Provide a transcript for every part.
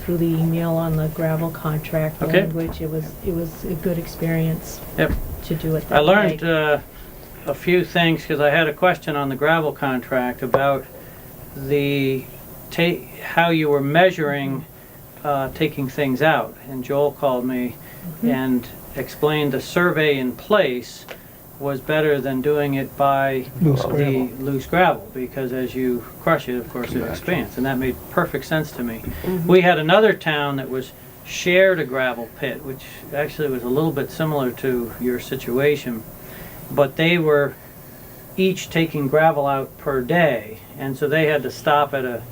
through the email on the gravel contract Okay. language. It was, it was a good experience Yep. to do it I that way. learned uh, a few things because I had a question on the gravel contract about the ta- how you were measuring uh, taking things out. And Joel called me Mm-hmm. and explained the survey in place was better than doing it by Loose the gravel. loose gravel because as you crush it, of course, it expands. And that made perfect sense to me. Mm-hmm. We had another town that was shared a gravel pit, which actually was a little bit similar to your situation, but they were each taking gravel out per day, and so they had to stop at a,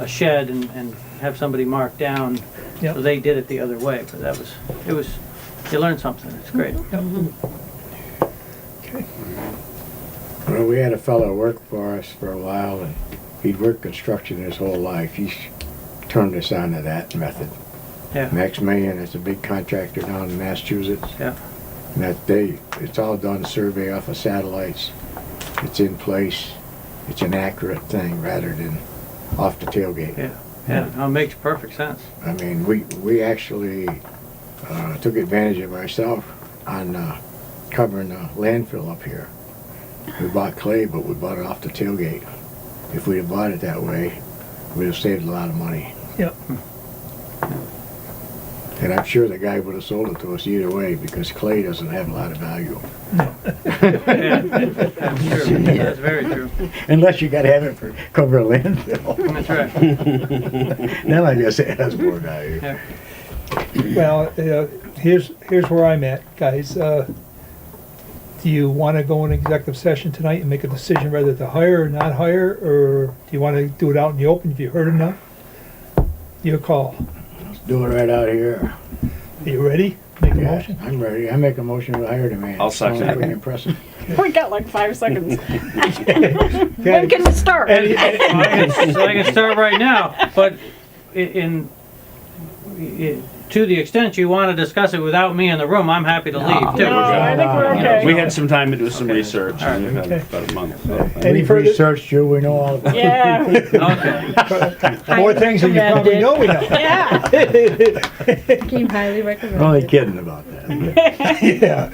a shed and, and have somebody mark down. Yep. So they did it the other way, but that was, it was, you learn something, it's great. Well, we had a fellow work for us for a while, and he'd worked construction his whole life. He's turned us on to that method. Yeah, Max Mayan is a big contractor down in Massachusetts. Yeah. And that they, it's all done survey off of satellites. It's in place. It's an accurate thing rather than off the tailgate. yeah, yeah, no, it makes perfect sense. I mean, we, we actually uh, took advantage of ourselves on uh, covering the landfill up here. We bought clay, but we bought it off the tailgate. If we'd have bought it that way, we'd have saved a lot of money. Yep. And I'm sure the guy would have sold it to us either way because clay doesn't have a lot of value. Yeah, That's true, that's very true, Unless you gotta have it for cover a landfill. that's right, Then I guess it has more value. yeah, Well, uh, here's, here's where I'm at, guys. Uh, Do you want to go in executive session tonight and make a decision whether to hire or not hire, or do you want to do it out in the open? Have you heard enough? Your call. Let's do it right out here. Are you ready? Make a Yeah, motion? I'm ready. I make a motion to hire the man. I'll second Sounds it. pretty impressive. We got like five seconds. When Okay. can we start? Any- any- Well, I can- so I can start right now, but i- in, i- to the extent you want to discuss it without me in the room, I'm happy to leave No, too. Oh, I think we're No, okay. We had some time to do some research, All right. and we've had about a month. so. Any We've further- researched you, we know all about it. Yeah, Okay, More things than you probably know we know. yeah. Came highly I'm only recommended. kidding about that. Yeah.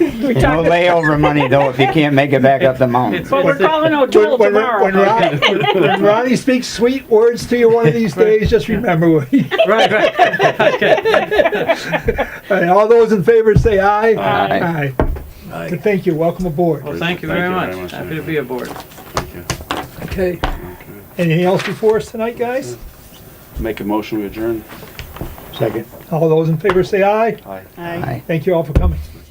We No talked, layover money though if you can't make it back up the mountain. it's, but we're calling When, O'Toole when, when, tomorrow. Ron, when Ronnie speaks sweet words to you one of these days, just remember what he right, right, okay, And all those in favor say aye. Aye. Aye. Good, Thank you, welcome aboard. well, thank you very much, happy to be aboard. Okay. Anything else before us tonight, guys? Make a motion, we adjourn. Second. All those in favor say aye. Aye. Aye. Aye. Thank you all for coming.